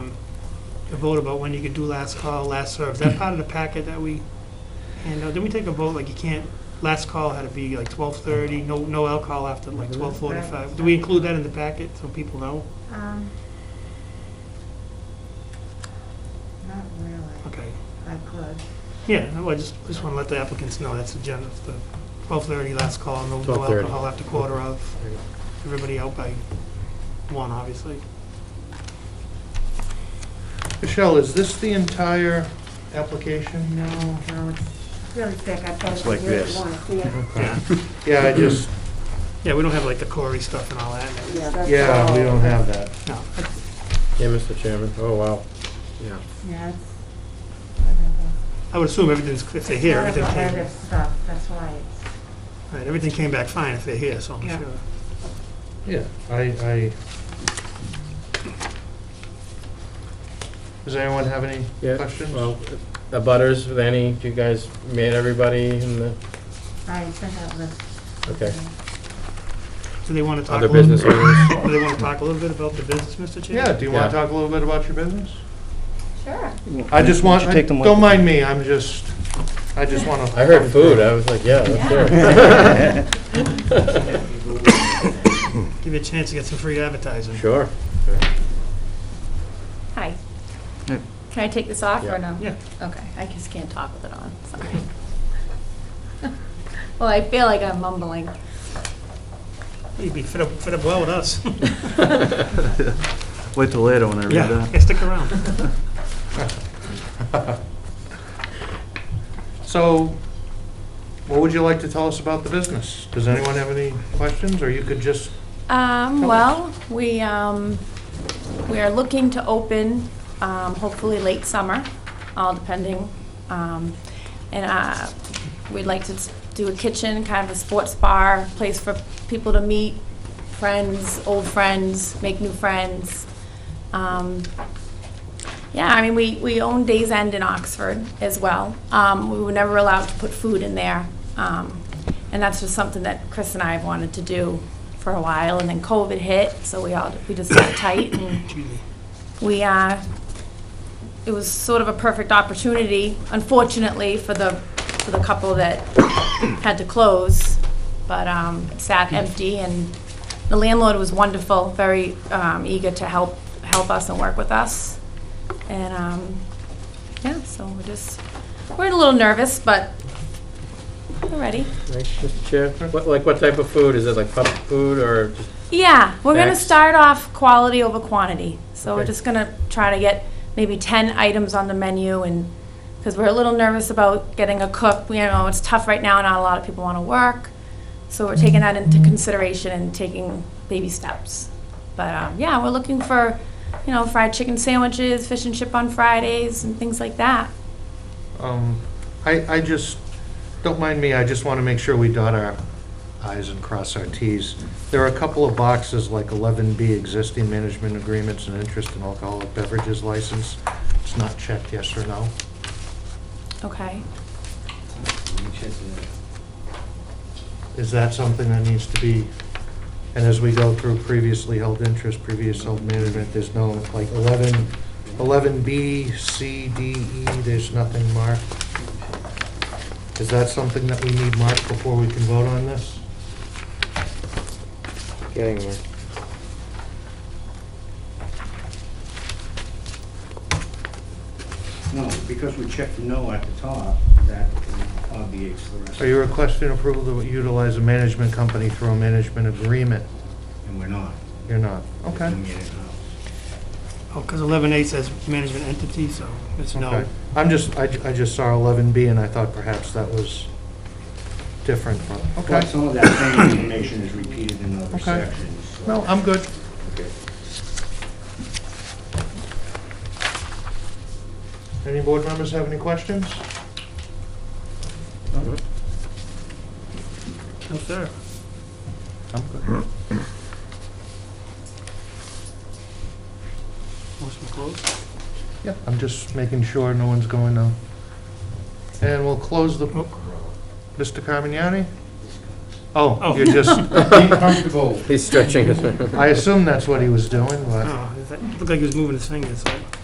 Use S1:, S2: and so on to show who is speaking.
S1: vote about when you could do last call, last serve. Is that part of the packet that we, and uh, did we take a vote, like you can't, last call had to be like 12:30, no, no alcohol after like 12:45? Do we include that in the packet so people know?
S2: Um, Not really,
S1: Okay.
S2: I could.
S1: Yeah, no, I just, just want to let the applicants know that's agenda, the 12:30 last call, no no
S3: 12:30.
S1: alcohol after quarter of, everybody out by one, obviously.
S3: Michelle, is this the entire application?
S2: No, no, it's really thick, I
S4: It's
S2: thought
S4: like
S2: you really
S4: this.
S2: want to see it.
S1: Yeah,
S3: Yeah, I just,
S1: yeah, we don't have like the Corey stuff and all that.
S2: Yeah, that's
S3: yeah, we
S2: all.
S3: don't have that.
S1: No,
S5: Yeah, Mr. Chairman. Oh, wow.
S3: Yeah.
S2: Yeah, it's, whatever.
S1: I would assume everything's, if they're here,
S2: It's
S1: everything
S2: not a
S1: came,
S2: lot of stuff, that's why it's,
S1: right, everything came back fine if they're here, so I'm
S2: Yeah.
S1: sure.
S3: Yeah, I, I. Does anyone have any
S5: Yeah,
S3: questions?
S5: Well, the butters with any, you guys made everybody in the,
S2: I sent out this.
S5: okay.
S1: Do they want to talk a
S5: Other
S1: little,
S5: business
S1: do
S5: owners?
S1: they want to talk a little bit about the business, Mr. Chair?
S3: Yeah, do you want
S5: Yeah.
S3: to talk a little bit about your business?
S2: Sure.
S3: I just want,
S6: take them with
S3: don't
S6: you?
S3: mind me, I'm just, I just want to.
S5: I heard food. I was like, yeah, that's
S1: Give you a chance to get some free advertising.
S5: Sure.
S7: Hi.
S6: Hey.
S7: Can I take this off
S5: Yeah.
S7: or no?
S1: Yeah.
S7: Okay, I just can't talk with it on, sorry. Well, I feel like I'm mumbling.
S1: You'd be fit up, fit up well with us.
S6: Wait till later when I read
S1: Yeah,
S6: that.
S1: yeah, stick around.
S3: So, what would you like to tell us about the business? Does anyone have any questions, or you could just,
S7: Um,
S3: Tell
S7: well, we, um, we are looking to open, um, hopefully late summer, all depending. Um, and, uh, we'd like to do a kitchen, kind of a sports bar, place for people to meet, friends, old friends, make new friends. Um, yeah, I mean, we, we own Days End in Oxford as well. Um, we were never allowed to put food in there. Um, and that's just something that Chris and I have wanted to do for a while. And then COVID hit, so we all, we just got tight and we, uh, it was sort of a perfect opportunity, unfortunately, for the, for the couple that had to close. But, um, it sat empty and the landlord was wonderful, very, um, eager to help, help us and work with us. And, um, yeah, so we're just, we're a little nervous, but we're ready.
S5: Right, Mr. Chair, what, like, what type of food? Is it like pup food or just,
S7: Yeah, we're gonna
S5: Next.
S7: start off quality over quantity, so we're
S5: Okay.
S7: just gonna try to get maybe ten items on the menu and, because we're a little nervous about getting a cook, we know it's tough right now, not a lot of people wanna work, so we're taking that into consideration and taking baby steps. But, um, yeah, we're looking for, you know, fried chicken sandwiches, fish and chip on Fridays and things like that.
S3: um, I, I just, don't mind me, I just want to make sure we dot our i's and cross our t's. There are a couple of boxes, like 11B, existing management agreements and interest in alcoholic beverages license. It's not checked yes or no.
S7: Okay.
S3: Is that something that needs to be, and as we go through previously held interest, previous held management, there's no, like 11, 11B, C, D, E, there's nothing marked? Is that something that we need marked before we can vote on this?
S5: getting there?
S4: No, because we checked no at the top, that obviates the rest.
S3: Are you requesting approval to utilize a management company through a management agreement?
S4: And we're not.
S3: You're not. Okay.
S4: Doing it in-house.
S1: Oh, because 11A says management entity, so it's no.
S3: Okay. I'm just, I ju- I just saw 11B and I thought perhaps that was different, but,
S4: But
S3: okay.
S4: some of that same information is repeated in other
S3: Okay.
S4: sections. so-
S3: No, I'm good.
S4: Okay.
S3: Any board members have any questions?
S1: No, sir. Motion closed.
S3: Yeah. I'm just making sure no one's going to. And we'll close the, Mr. Carmignani? Oh,
S1: Oh.
S3: you're just,
S4: Be comfortable.
S5: He's stretching his.
S3: I assume that's what he was doing, but.
S1: Oh, is that- looked like he was moving his fingers, so.